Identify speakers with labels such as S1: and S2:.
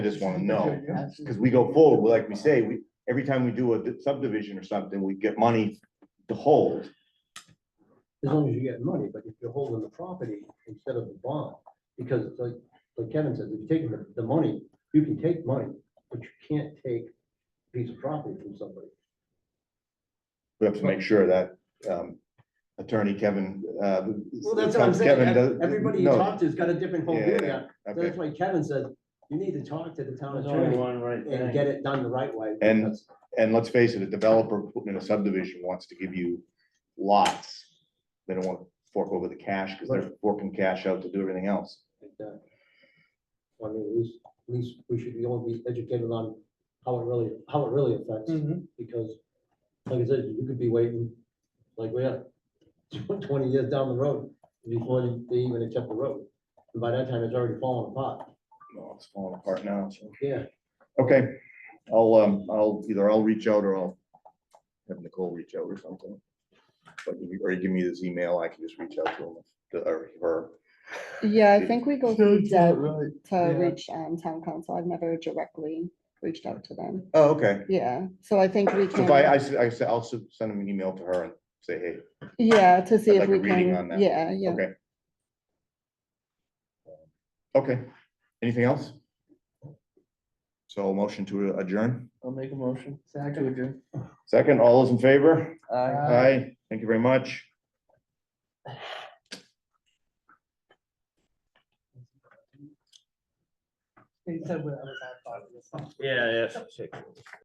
S1: I just wanna know, cause we go forward, like we say, we, every time we do a subdivision or something, we get money to hold.
S2: As long as you get money, but if you're holding the property instead of the bond, because it's like, like Kevin says, if you're taking the, the money, you can take money, but you can't take a piece of property from somebody.
S1: We have to make sure that, um, attorney Kevin, uh.
S2: Well, that's what I'm saying.
S1: Kevin
S2: Ev-
S1: does-
S2: Everybody you
S1: no,
S2: talk to's got a different whole
S1: Yeah,
S2: view.
S1: yeah,
S2: now. So
S1: okay.
S2: That's why Kevin says, you need to talk to the town
S3: There's only
S2: attorney
S3: one right
S2: and
S3: thing.
S2: get it done the right way.
S1: And-
S2: because-
S1: And let's face it, a developer putting in a subdivision wants to give you lots. They don't want to fork over the cash, cause they're forking cash out to do everything else.
S2: like that. I mean, at least, at least we should be all be educated on how it really, how it really affects,
S3: Mhm.
S2: because like I said, you could be waiting, like we are, tw- twenty years down the road before they- they even accept the road. And by that time, it's already fallen apart.
S1: No, it's falling apart now, so.
S2: Yeah.
S1: Okay, I'll, um, I'll, either I'll reach out or I'll have Nicole reach out or something. But you, or you give me this email, I can just reach out to him, to- or her.
S4: Yeah, I think we go through Deb
S1: right.
S4: to
S3: Yeah.
S4: reach um town council. I've never directly reached out to them.
S1: Oh, okay.
S4: Yeah, so I think we
S1: So if I, I
S4: can,
S1: s- I said, I'll s- send him an email to her and say, hey,
S4: yeah, to see
S1: I'd
S4: if
S1: like a
S4: we
S1: reading on that.
S4: can, yeah, yeah.
S1: Okay. Um, Okay, anything else? So a motion to adjourn.
S3: I'll make a motion. To adjourn.
S1: Second, all those in favor?
S3: Aye.
S1: Aye, thank you very much.
S5: They said when I was out.
S3: Yeah, yeah.